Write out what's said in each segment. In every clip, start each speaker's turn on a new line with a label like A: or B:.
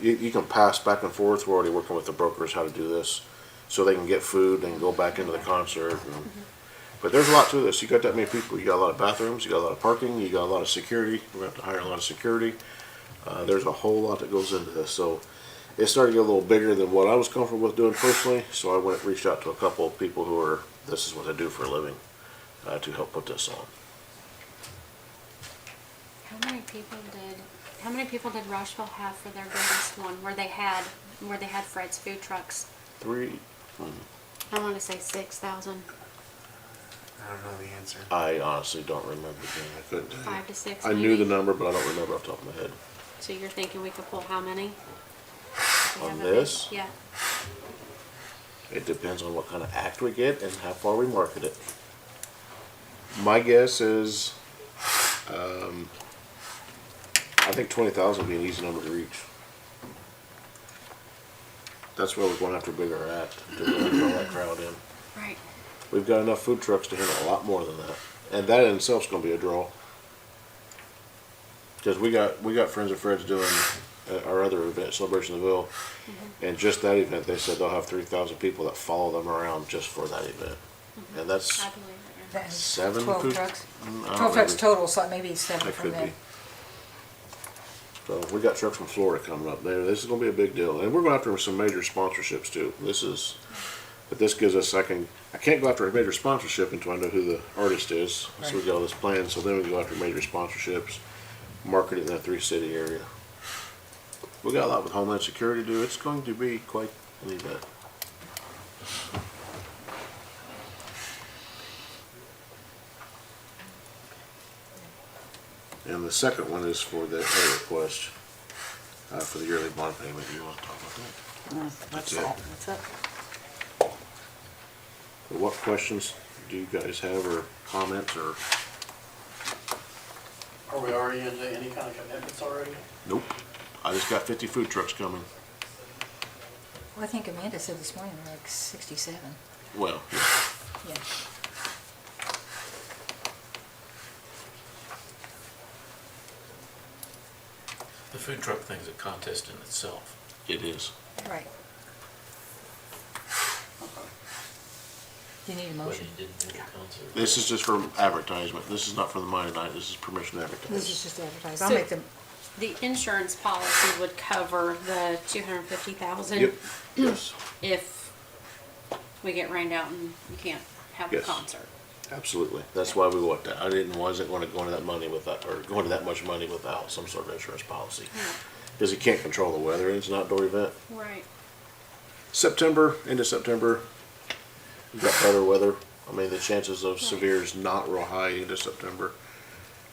A: you, you can pass back and forth. We're already working with the brokers how to do this, so they can get food and go back into the concert. And,
B: Mm-hmm.
A: but there's a lot to this. You got that many people. You got a lot of bathrooms. You got a lot of parking. You got a lot of security. We're gonna have to hire a lot of security. Uh, there's a whole lot that goes into this. So it started to get a little bigger than what I was comfortable with doing personally. So I went reached out to a couple of people who are this is what they do for a living uh, to help put this on.
B: How many people did, how many people did Rocheville have for their biggest one where they had, where they had Fred's food trucks?
A: Three.
B: I wanna say six thousand,
C: I don't know the answer.
A: I honestly don't remember. Jane. I couldn't. tell you.
B: five to six
A: I
B: maybe?
A: knew the number, but I don't remember off the top of my head.
B: So you're thinking we could pull how many? If we
A: On
B: have a big-
A: this?
B: Yeah,
A: It depends on what kind of act we get and how far we market it. My guess is, um, I think twenty thousand would be an easy number to reach. That's where we're going after a bigger act to really draw that crowd in.
B: right.
A: We've got enough food trucks to handle a lot more than that, and that in itself's gonna be a draw. Cause we got, we got Friends of Fred's doing uh, our other event, Celebration of the Ville, and just that event, they said they'll have three thousand people that follow them around just for that event. And that's,
B: I believe it.
D: That is
A: Seven food-
D: Twelve trucks.
A: Mm, I don't
D: Twelve trucks
A: remember.
D: total, so maybe seven
A: that
D: from
A: could
D: there.
A: be. So we got trucks from Florida coming up there, this is gonna be a big deal, and we're going after some major sponsorships too, this is, but this gives us, I can, I can't go after a major sponsorship until I know who the artist is, so we
D: Right.
A: got all this planned, so then we go after major sponsorships, market it in that three city area. We got a lot with Homeland Security to do, it's going to be quite uh, an event. And the second one is for the pay request, uh, for the yearly bond payment, you wanna talk about that? That's
D: That's
A: it.
D: all, that's it.
A: But What questions do you guys have or comments or?
E: Are we already into any kind of commitments already?
A: Nope. I just got fifty food trucks coming.
D: Well, I think Amanda said this morning, like sixty-seven,
A: Well,
D: yeah.
F: The food truck thing's a contest in itself.
A: it is.
D: Right. You need a
F: Whether
D: motion.
F: you didn't do the concert.
A: This is just for advertisement. This is not for the money night. This is permission to advertise.
D: This is just advertised. I'll
B: So-
D: make them,
B: The insurance policy would cover the two hundred and fifty thousand
A: Yep. Yes,
B: if we get rained out and you can't have a
A: Yes.
B: concert.
A: absolutely. That's why we want that. I didn't, wasn't gonna go into that money without, or go into that much money without some sort of insurance policy. Cause you can't control the weather and it's an outdoor event.
B: Right.
A: September, end of September, you got better weather. I mean, the chances of severe is not real high into September.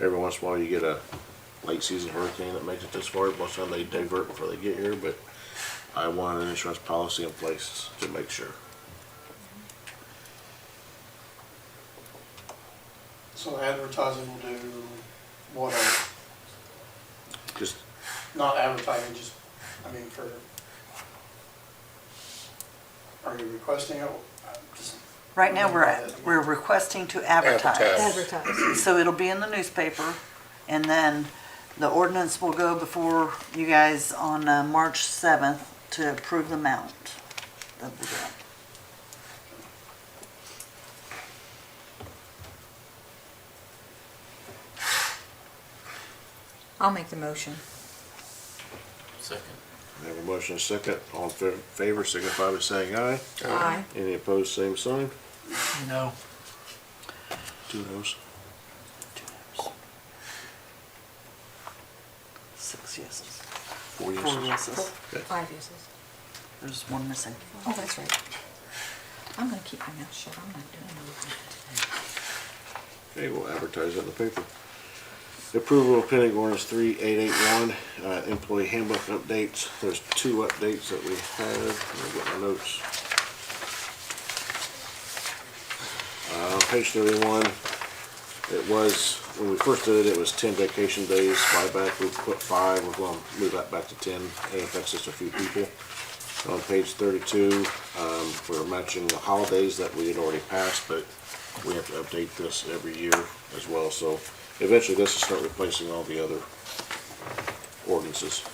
A: Every once in a while, you get a late season hurricane that makes it this far. Most of the time, they divert before they get here, but I want an insurance policy in place to make sure.
E: So advertising will do what, uh,
A: Just,
E: not advertising, just, I mean, for, are you requesting it? Uh, just-
G: Right now, we're, at- we're requesting to advertise.
D: advertise.
G: So it'll be in the newspaper, and then the ordinance will go before you guys on uh, March 7th to approve the amount of the grant.
D: I'll make the motion.
F: Second.
A: I have a motion and a second. All in fa- favor, signify by saying aye.
D: Aye.
A: Any opposed, same sign.
C: No.
A: Two noes.
G: Six yeses,
A: Four
G: four
A: yeses.
G: yeses.
D: Five uses.
G: There's one missing.
D: Oh, that's right. I'm gonna keep my mouth shut. I'm not doing anything.
A: Okay, we'll advertise it in the paper. Approval of pending ordinance three eight eight one, uh, employee handbook updates. There's two updates that we have. Let me get my notes. Uh, on page thirty-one, it was, when we first did it, it was ten vacation days. Buyback, we put five. We're gonna move that back to ten. It affects just a few people. On page thirty-two, um, we're matching the holidays that we had already passed, but we have to update this every year as well, so eventually this will start replacing all the other ordinances.